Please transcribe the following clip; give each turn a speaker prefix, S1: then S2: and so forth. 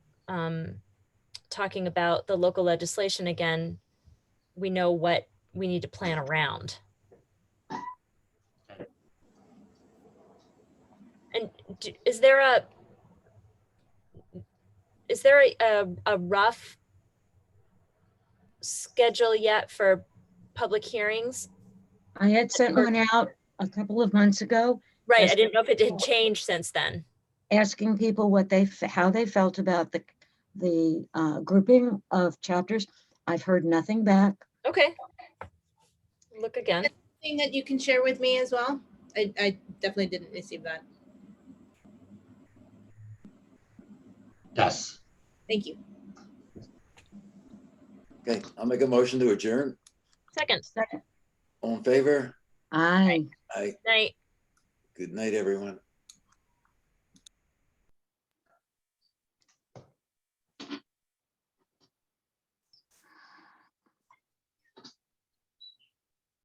S1: um, talking about the local legislation again, we know what we need to plan around. And d- is there a, is there a- a, a rough schedule yet for public hearings?
S2: I had sent one out a couple of months ago,
S1: Right, I
S2: Yes.
S1: didn't know if it had changed since then.
S2: asking people what they, f- how they felt about the, the uh, grouping of chapters. I've heard nothing back.
S1: Okay. Look again.
S3: Thing that you can share with me as well? I, I definitely didn't receive that.
S4: Yes.
S3: Thank you.
S5: Okay, I'll make a motion to adjourn.
S1: Second,
S5: All in favor?
S2: I.
S5: Aye.
S1: night.
S5: Good night, everyone.